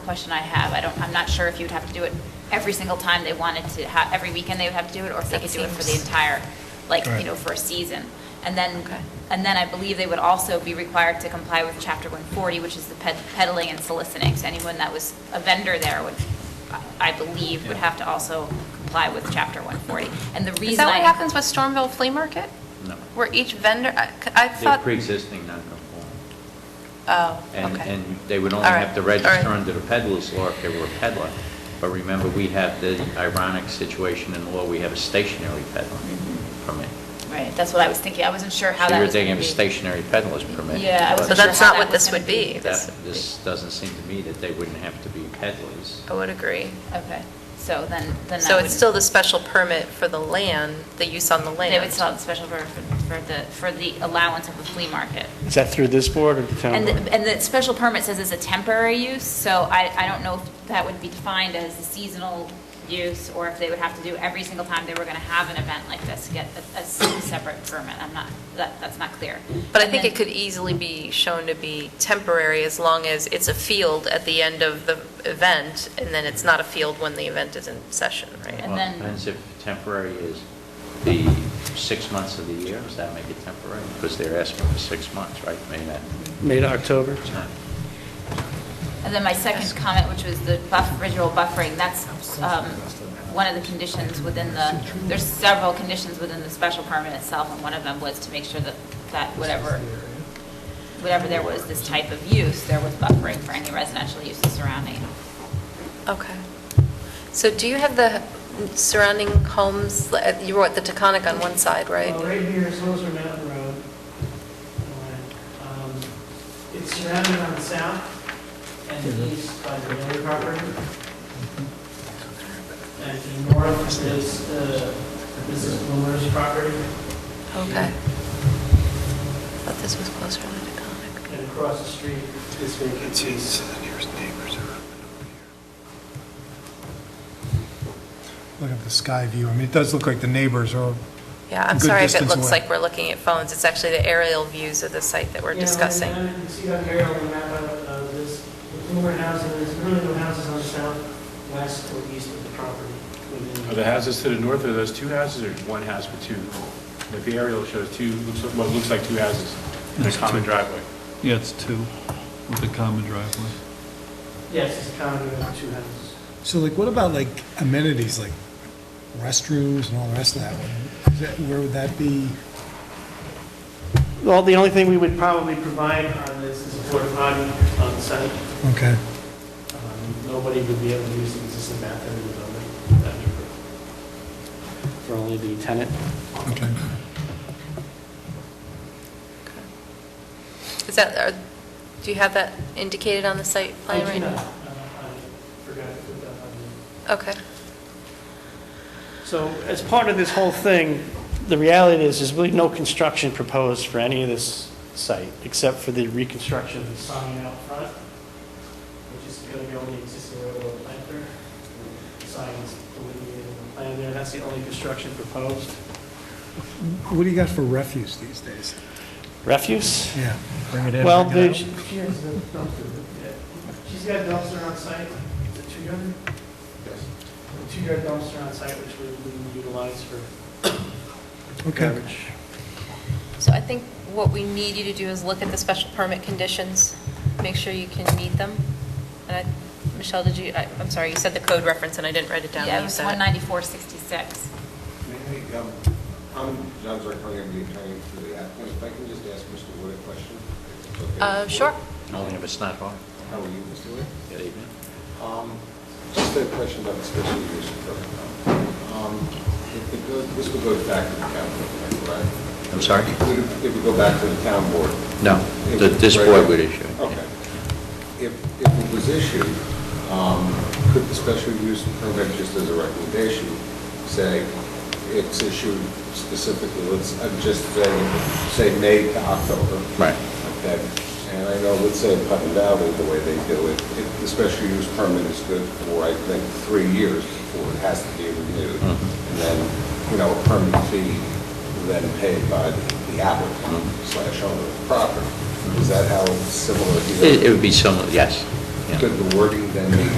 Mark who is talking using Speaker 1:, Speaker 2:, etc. Speaker 1: question I have. I don't, I'm not sure if you'd have to do it every single time they wanted to, ha- every weekend they would have to do it, or if they
Speaker 2: That
Speaker 1: could do it for the
Speaker 2: seems-
Speaker 1: entire, like, you
Speaker 3: Right.
Speaker 1: know, for a season. And then,
Speaker 2: Okay.
Speaker 1: and then I believe they would also be required to comply with Chapter 140, which is the ped- peddling and soliciting. So anyone that was a vendor there would, I- I believe, would have to also comply with Chapter 140. And the reason I...
Speaker 2: Is that what happens with Stormville Flea Market?
Speaker 4: No.
Speaker 2: Where each vendor, I I
Speaker 4: They're
Speaker 2: thought,
Speaker 4: pre-existing non-conforming.
Speaker 2: oh,
Speaker 4: And,
Speaker 2: okay.
Speaker 4: and they would only
Speaker 2: All right,
Speaker 4: have to
Speaker 2: all right.
Speaker 4: register under the peddler's law if they were a peddler. But remember, we have the ironic situation in the law, we have a stationary peddler
Speaker 2: Mm-hmm.
Speaker 4: permit.
Speaker 1: Right, that's what I was thinking. I wasn't sure how
Speaker 4: So
Speaker 1: that
Speaker 4: you're
Speaker 1: was
Speaker 4: thinking
Speaker 1: going
Speaker 4: of a stationary peddler's permit.
Speaker 1: Yeah, I
Speaker 4: but
Speaker 1: wasn't
Speaker 2: So
Speaker 1: sure
Speaker 2: that's
Speaker 1: how
Speaker 2: not
Speaker 1: that
Speaker 2: what
Speaker 1: was
Speaker 2: this
Speaker 1: gonna
Speaker 2: would
Speaker 1: be.
Speaker 2: be. This,
Speaker 4: that- This doesn't seem to me that they wouldn't have to be peddlers.
Speaker 2: I would agree.
Speaker 1: Okay, so then, then that
Speaker 2: So
Speaker 1: would-
Speaker 2: it's still the special permit for the land, the use on the land.
Speaker 1: They would sell the special permit for for the, for the allowance of the flea market.
Speaker 3: Is that through this board or the town
Speaker 1: And, the-
Speaker 3: board?
Speaker 1: and the special permit says it's a temporary use, so I, I don't know if that would be defined as a seasonal use, or if they would have to do every single time they were gonna have an event like this, get a, a separate permit. I'm not, that, that's not clear.
Speaker 2: But I
Speaker 1: And
Speaker 2: think
Speaker 1: then-
Speaker 2: it could easily be shown to be temporary as long as it's a field at the end of the event, and then it's not a field when the event is in session, right?
Speaker 1: And
Speaker 4: Well,
Speaker 1: then-
Speaker 4: it Depends if temporary is the six months of the year, does that make it temporary? Because they're asking for six months, right? Maybe that,
Speaker 3: May to October?
Speaker 4: it's not.
Speaker 1: And then my second comment, which was the buff, visual buffering, that's um, one of the conditions within the, there's several conditions within the special permit itself, and one of them was to make sure that, that whatever, whatever there was this type of use, there was buffering for any residential uses surrounding. it.
Speaker 2: Okay. So do you have the surrounding homes, uh, you were at the Taconic on one side, right?
Speaker 5: Well, right here is Hoser Mountain Road. Um, It's surrounded on the south and the east by the Miller property. And the north is the Mrs. Blumer's property,
Speaker 2: Okay. Thought this was closer to the Taconic.
Speaker 5: and across the street is vacancies.
Speaker 6: Look at the sky view. I mean, it does look like the neighbors are,
Speaker 2: Yeah, I'm
Speaker 6: Good
Speaker 2: sorry if it
Speaker 6: distance
Speaker 2: looks
Speaker 6: away.
Speaker 2: like we're looking at phones. It's actually the aerial views of the site that we're discussing.
Speaker 5: You know, and uh, you can see on here on the map of uh, this, the Blumer housing, there's really no houses on the south, west, or east of the property. within-
Speaker 7: Are the houses to the north, are those two houses or one house with two? Like the aerial shows two, looks like- what looks like two houses in a
Speaker 8: That's
Speaker 7: common
Speaker 8: two.
Speaker 7: driveway.
Speaker 8: Yeah, it's two with a common driveway.
Speaker 5: Yes, it's counted as two houses.
Speaker 6: so like, what about like amenities, like restrooms and all the rest of that? Is that- Where would that be?
Speaker 5: Well, the only thing we would probably provide on this is a porta potty on site.
Speaker 6: Okay.
Speaker 5: Um, Nobody would be able to use the existing bathroom in the building. That'd be approved. For only the tenant.
Speaker 6: Okay.
Speaker 2: Is that, are- do you have that indicated on the site plan
Speaker 5: I do
Speaker 2: right
Speaker 5: not. Uh,
Speaker 2: now?
Speaker 5: I forgot to put that on
Speaker 2: Okay.
Speaker 5: there. So
Speaker 9: As part of this whole thing, the reality is, there's really no construction proposed for any of this site, except for the reconstruction of the
Speaker 5: sign out front, which is going to be only existing railroad planter. Signs delineated in the plan there. That's the only construction proposed.
Speaker 6: What do you got for refuse these days?
Speaker 9: refuse.
Speaker 6: Yeah. Bring it in.
Speaker 9: Well,
Speaker 6: bring it
Speaker 9: there's-
Speaker 6: out.
Speaker 5: She has a dumpster. Yeah. She's got a dumpster on site, the two-yard? Yes. A two-yard dumpster on site, which we we utilize for
Speaker 6: Okay.
Speaker 5: garbage.
Speaker 2: So I think what we need you to do is look at the special permit conditions, make sure you can meet them. And I, Michelle, did you, I- I'm sorry, you said the code reference and I didn't write it down.
Speaker 1: Yeah, it
Speaker 2: You
Speaker 1: was
Speaker 2: said it.
Speaker 1: 19466.
Speaker 10: May I, um, I'm John Zarcone, I'm the attorney for the applicant. If I can just ask Mr. Wood a question? if it's okay.
Speaker 2: Uh, sure.
Speaker 4: Only if it's not hard.
Speaker 10: How are you, Mr. Wood?
Speaker 4: Good evening.
Speaker 10: Um, Just a question about the special use permit. Um, if it goes- This would go back to the town board, correct?
Speaker 4: I'm sorry?
Speaker 10: Would it- It would go back to the town board?
Speaker 4: No,
Speaker 10: It
Speaker 4: the-
Speaker 10: would-
Speaker 4: this
Speaker 10: right?
Speaker 4: board would issue it.
Speaker 10: Okay. If, if it was issued, um, could the special use permit, just as a recommendation, say it's issued specifically, let's, I'm just saying, say May to October?
Speaker 4: Right.
Speaker 10: Okay, and I know, let's say in Putnam Valley, the way they do it, it- the special use permit is good for, I think, three years before it has to be renewed.
Speaker 4: Mhm.
Speaker 10: And then, you know, a permit fee then paid by the applicant slash owner of the property. Is that how it's similar? to
Speaker 4: Mm-hmm. It it would be similar, yes, yeah.
Speaker 6: Could the wording then be